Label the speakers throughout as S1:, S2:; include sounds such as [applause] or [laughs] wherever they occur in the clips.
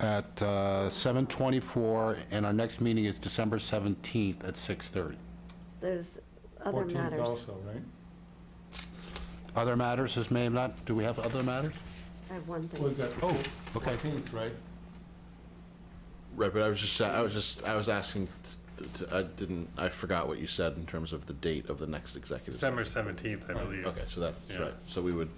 S1: at uh, 7:24, and our next meeting is December 17th at 6:30.
S2: There's other
S3: 14th
S2: matters.
S3: also, right?
S1: Other matters, is may not, do we have other matters?
S2: I have one
S3: Well,
S2: thing.
S3: We've got, oh,
S1: Okay.
S3: 14th, right?
S4: Right, but I was just, I was just, I was asking, t- t- I didn't, I forgot what you said in terms of the date of the next executive.
S5: December 17th, I believe.
S4: Okay, so that's
S5: Yeah.
S4: right. So we would,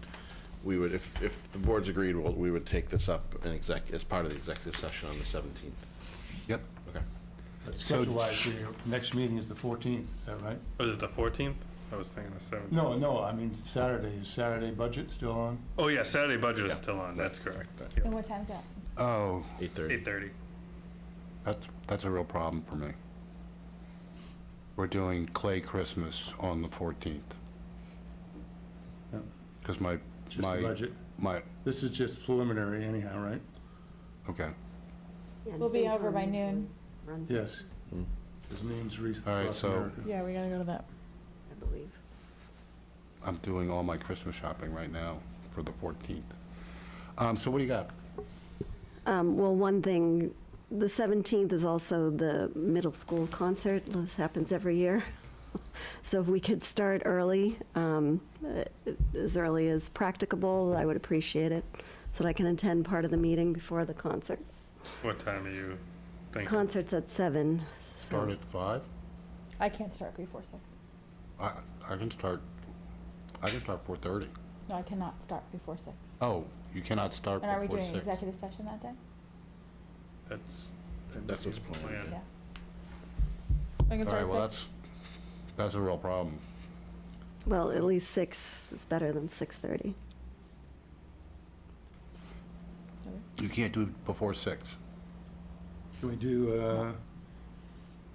S4: we would, if, if the board's agreed, we'll- we would take this up in exec, as part of the executive session on the 17th.
S1: Yep.
S4: Okay.
S3: But Schedule-wise, your next meeting is the 14th, is that right?
S5: Was it the 14th? I was thinking the 17th.
S3: No, no, I mean Saturday. Is Saturday budget still on?
S5: Oh, yeah, Saturday budget is
S4: Yeah.
S5: still on, that's correct.
S6: And what time's that?
S1: Oh,
S4: 8:30.
S5: 8:30.
S1: that's, that's a real problem for me. We're doing Clay Christmas on the 14th.
S3: Yeah.
S1: Because my,
S3: Just the
S1: my,
S3: budget?
S1: my,
S3: This is just preliminary anyhow, right?
S1: okay.
S2: Yeah,
S6: We'll be
S2: FinCom
S6: over by
S2: usually
S6: noon.
S2: Runs, it,
S3: Yes. His name's Reese
S1: Hmm. All right,
S3: across
S1: so-
S3: America.
S6: Yeah, we gotta go to that.
S2: I believe.
S1: I'm doing all my Christmas shopping right now for the 14th. Um, So what do you got?
S2: Um, Well, one thing, the 17th is also the middle school concert. This happens every year. [laughs] So if we could start early, um, uh, as early as practicable, I would appreciate it, so that I can attend part of the meeting before the concert.
S5: What time are you thinking?
S2: Concert's at seven.
S1: Start at 5?
S6: I can't start before six.
S1: I, I can start, I can start 4:30.
S6: No, I cannot start before six.
S1: Oh, you cannot start
S6: And are we
S1: before
S6: doing an
S1: 6.
S6: executive session that day?
S5: That's.
S4: That's what's
S5: the
S4: planned,
S5: plan.
S6: Yeah.
S1: All right, well, that's, that's a real problem.
S2: Well, at least six is better than 6:30.
S1: You can't do it before 6.
S3: Can we do uh,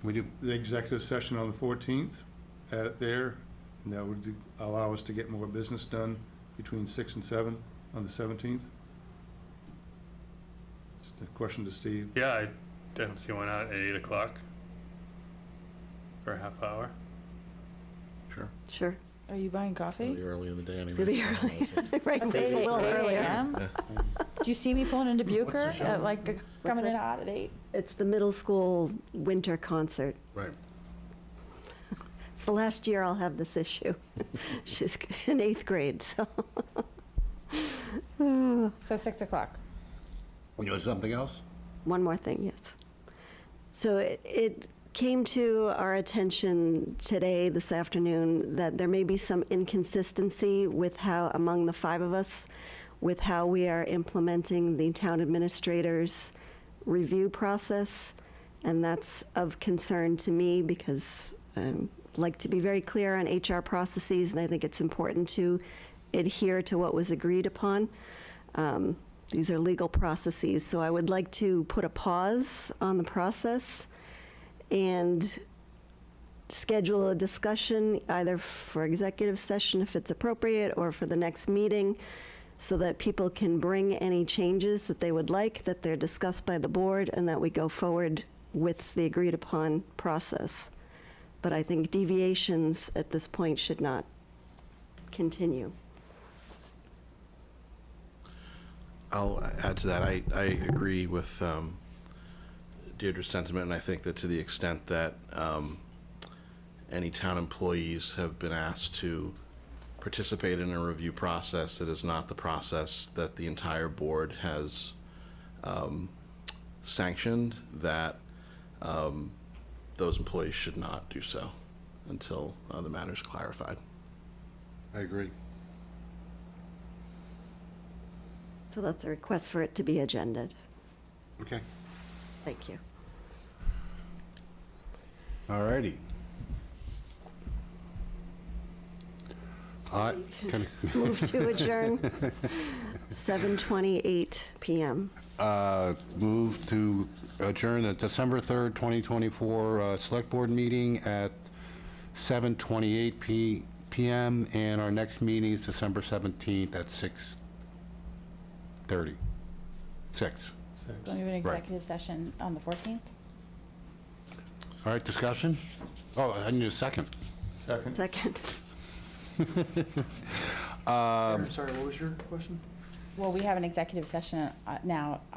S1: We do,
S3: the executive session on the 14th? Add it there, and that would allow us to get more business done between 6 and 7 on the 17th? Just a question to Steve.
S5: Yeah, I didn't see one out at 8 o'clock for a half hour.
S4: Sure.
S2: Sure.
S6: Are you buying
S4: It'll
S6: coffee?
S4: be early in the day anyway.
S2: It'll be early. [laughs] Right,
S6: It's
S2: it's a
S6: eight-
S2: little
S6: eight
S2: earlier.
S6: AM? Do you see me pulling into Bucher
S4: show?
S6: at like, coming in
S2: it?
S6: hot at eight?
S2: It's the middle school winter concert.
S1: right.
S2: It's the last year I'll have this issue. [laughs] She's in eighth grade, so.
S6: So six o'clock.
S1: You know something else?
S2: One more thing, yes. So it, it came to our attention today, this afternoon, that there may be some inconsistency with how, among the five of us, with how we are implementing the town administrator's review process. And that's of concern to me because I like to be very clear on HR processes, and I think it's important to adhere to what was agreed upon. Um, These are legal processes, so I would like to put a pause on the process and schedule a discussion, either for executive session if it's appropriate, or for the next meeting, so that people can bring any changes that they would like, that they're discussed by the board, and that we go forward with the agreed-upon process. But I think deviations at this point should not continue.
S4: I'll add to that. I, I agree with um, Deirdre's sentiment, and I think that to the extent that um, any town employees have been asked to participate in a review process that is not the process that the entire board has um, sanctioned, that um, those employees should not do so until uh, the matter is clarified.
S1: I agree.
S2: So that's a request for it to be agended.
S1: Okay.
S2: Thank you.
S1: All righty. I- can-
S2: Move to adjourn, 7:28 PM.
S1: uh, Move to adjourn the December 3rd, 2024 uh, Select Board meeting at 7:28 P- PM, and our next meeting is December 17th at 6:30. 6.
S3: Six.
S6: Don't even
S1: Right.
S6: executive session on the fourteenth?
S1: All right, discussion? Oh, I need a second.
S3: Second.
S2: Second.
S4: Sorry, what was your question?
S6: Well, we have an executive session uh, now